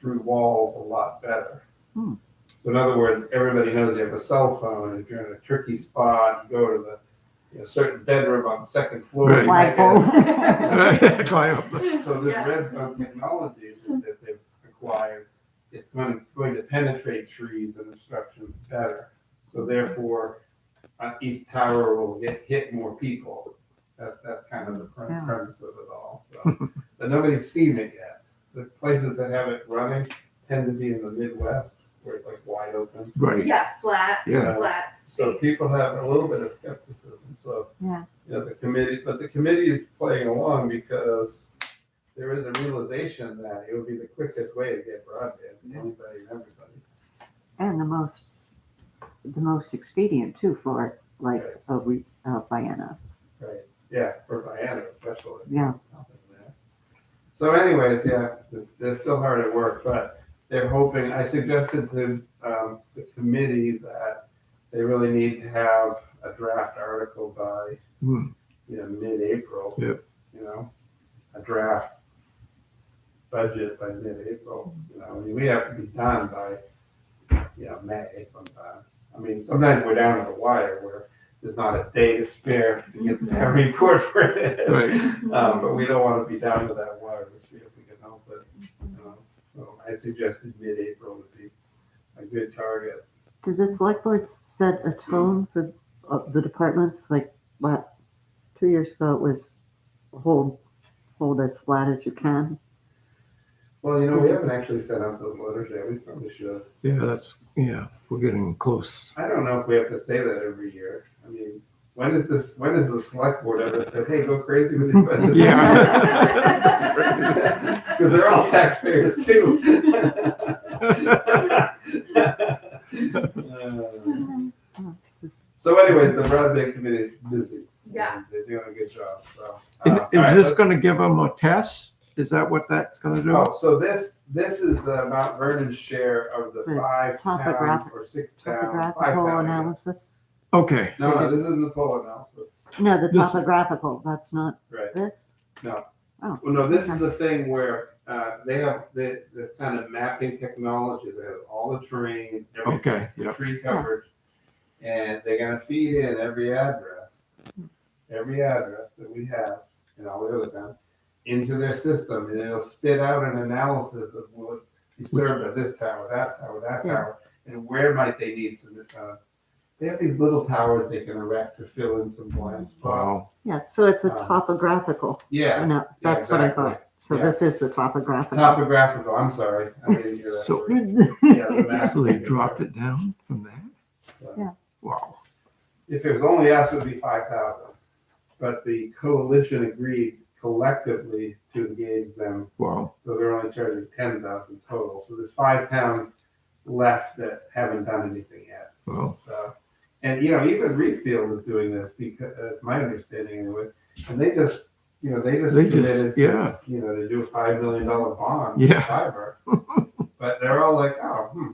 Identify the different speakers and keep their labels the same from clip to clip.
Speaker 1: through walls a lot better.
Speaker 2: Hmm.
Speaker 1: So in other words, everybody knows you have a cell phone, and if you're in a tricky spot, you go to the, you know, certain dead room on the second floor.
Speaker 3: Right.
Speaker 1: you might get-
Speaker 2: Flagpole.
Speaker 3: Climb up.
Speaker 1: So this
Speaker 4: Yeah.
Speaker 1: redstone technology that that they've acquired, it's going, going to penetrate trees and obstructions better. So therefore, uh, each tower will get, hit more people. That, that's kind of the pre-
Speaker 2: Yeah.
Speaker 1: premise of it all, so. But nobody's seen it yet. The places that have it running tend to be in the Midwest where it's like wide open.
Speaker 3: Right,
Speaker 4: Yeah, flat,
Speaker 3: yeah.
Speaker 4: flat.
Speaker 1: So uh, people have a little bit of skepticism, so.
Speaker 2: Yeah.
Speaker 1: You know, the committee, but the committee is playing along because there is a realization that it would be the quickest way to get broadband to anybody and everybody.
Speaker 2: And the most, the most expedient too for like a re, uh, Vienna,
Speaker 1: Right. Yeah, for Vienna especially.
Speaker 2: yeah.
Speaker 1: So anyways, yeah, it's- they're still hard at work, but they're hoping, I suggested to um, the committee that they really need to have a draft article by,
Speaker 3: Hmm.
Speaker 1: you know, mid-April.
Speaker 3: Yep.
Speaker 1: You know, a draft budget by mid-April, you know, I mean, we have to be done by, you know, May sometimes. I mean, sometimes we're down to the wire where there's not a day to spare to get that report printed.
Speaker 3: Hmm. Right,
Speaker 1: Um, but we don't want to be down to that wire this year if we can help it. you know. So I suggested mid-April would be a good target.
Speaker 2: Did the select board set a tone for uh, the departments? Like, what, two years ago it was hold, hold as flat as you can.
Speaker 1: Well, you know, we haven't actually sent out those letters yet. We probably should.
Speaker 3: yeah, that's, yeah, we're getting close.
Speaker 1: I don't know if we have to say that every year. I mean, when is this, when is the select board ever said, hey, go crazy with your budget?
Speaker 3: Yeah.
Speaker 1: Because they're all taxpayers too. Uh,
Speaker 2: Just-
Speaker 1: So anyways, the broadband committee is busy.
Speaker 4: Yeah.
Speaker 1: They're doing a good job, so. uh,
Speaker 3: And
Speaker 1: all
Speaker 3: Is
Speaker 1: right,
Speaker 3: this
Speaker 1: let's-
Speaker 3: gonna give them a test? Is that what that's gonna do?
Speaker 1: Oh, so this, this is the Mount Vernon's share of the
Speaker 2: The
Speaker 1: five town
Speaker 2: topographic-
Speaker 1: or six town, Um, five
Speaker 2: Topographical
Speaker 1: town. yeah.
Speaker 2: analysis?
Speaker 3: Okay,
Speaker 1: No, no, this isn't the poll analysis,
Speaker 2: No, the
Speaker 3: This-
Speaker 2: topographical, that's not
Speaker 1: right.
Speaker 2: this?
Speaker 1: Well, no, this is the thing where, uh, they have thi- this kind of mapping technology, they have all the terrain, everything.
Speaker 3: okay, yeah,
Speaker 1: tree coverage, and they're gonna feed in every address, every address that we have and all the other towns into their system, and it'll spit out an analysis of what be served at this tower, that tower, that
Speaker 2: Yeah.
Speaker 1: tower, and where might they need some, uh, they have these little towers they can erect to fill in some blind spots.
Speaker 3: wow,
Speaker 2: Yeah, so it's a
Speaker 1: Um,
Speaker 2: topographical,
Speaker 1: Yeah,
Speaker 2: no, that's what I
Speaker 1: exactly.
Speaker 2: thought. So
Speaker 1: Yeah. Uh,
Speaker 2: this is the topographical.
Speaker 1: topographical, I'm sorry. I didn't hear that
Speaker 3: So-
Speaker 1: word. Yeah, the map.
Speaker 3: so they dropped it down from that?
Speaker 2: Yeah.
Speaker 3: Wow,
Speaker 1: If it was only us, it would be five thousand. But the coalition agreed collectively to engage them,
Speaker 3: wow,
Speaker 1: so they're only charging ten thousand total. So there's five towns left that haven't done anything yet.
Speaker 3: wow,
Speaker 1: So, and you know, even Reedfield is doing this because, that's my understanding anyway. And they just, you know, they just
Speaker 3: they just,
Speaker 1: committed,
Speaker 3: yeah,
Speaker 1: you know, to do a five million dollar bond.
Speaker 3: Yeah.
Speaker 1: Fiber. But they're all like, oh, hmm,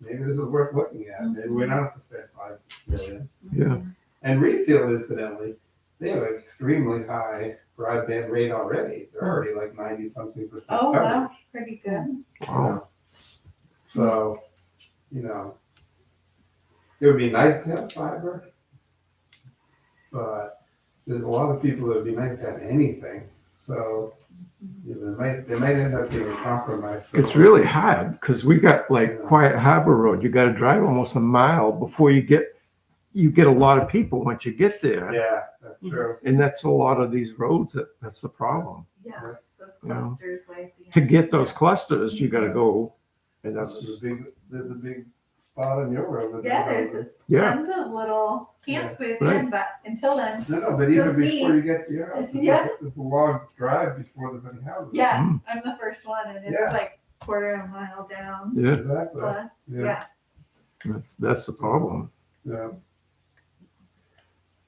Speaker 1: maybe this is worth looking at. Maybe we don't have to spend five million.
Speaker 3: yeah,
Speaker 1: And Reedfield, incidentally, they have an extremely high broadband rate already.
Speaker 3: Hmm.
Speaker 1: They're already like ninety something percent
Speaker 4: Oh,
Speaker 1: coverage.
Speaker 3: Uh-huh.
Speaker 4: wow, pretty good.
Speaker 3: wow,
Speaker 1: So, you know, it would be nice to have fiber, but there's a lot of people that would be nice to have anything. So, you know, they might they might end up being a compromise. for-
Speaker 3: it's really hard, because we got like Quiet Harbor Road, you gotta drive almost a mile before you get, you get a lot of people once you get there.
Speaker 1: Yeah, that's true.
Speaker 3: And that's a lot of these roads, that, that's the problem.
Speaker 4: Yeah, those
Speaker 3: You know,
Speaker 4: clusters way at the
Speaker 3: To
Speaker 4: end.
Speaker 3: get those clusters, you gotta go, and that's,
Speaker 1: There's a big there's a big spot on your road. that-
Speaker 4: Yeah, there's
Speaker 3: yeah,
Speaker 4: Tons of little camps with
Speaker 3: Right.
Speaker 4: them, but until then,
Speaker 1: No, no, but even
Speaker 4: Just
Speaker 1: before
Speaker 4: me.
Speaker 1: you get to your house, it's
Speaker 4: Yeah.
Speaker 1: a- it's a long drive before there's any houses.
Speaker 4: yeah,
Speaker 3: Mm.
Speaker 4: I'm the first one and
Speaker 1: Yeah.
Speaker 4: it's like quarter of a mile down
Speaker 3: yeah,
Speaker 1: Exactly,
Speaker 4: plus,
Speaker 1: Yeah.
Speaker 4: yeah.
Speaker 3: that's, that's the problem.
Speaker 1: yeah.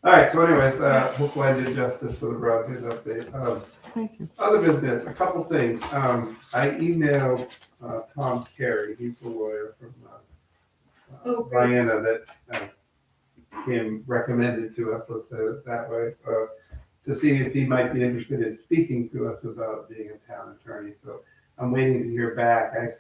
Speaker 1: All right, so anyways, uh, hopefully I did justice to the broadband update. Um,
Speaker 2: Thank you.
Speaker 1: other business, a couple things. Um, I emailed, uh, Tom Carey, he's the lawyer from, uh, uh,
Speaker 4: Oh, great.
Speaker 1: Vienna that, uh, him recommended to us, let's say it that way, uh, to see if he might be interested in speaking to us about being a town attorney. So I'm waiting to hear back. I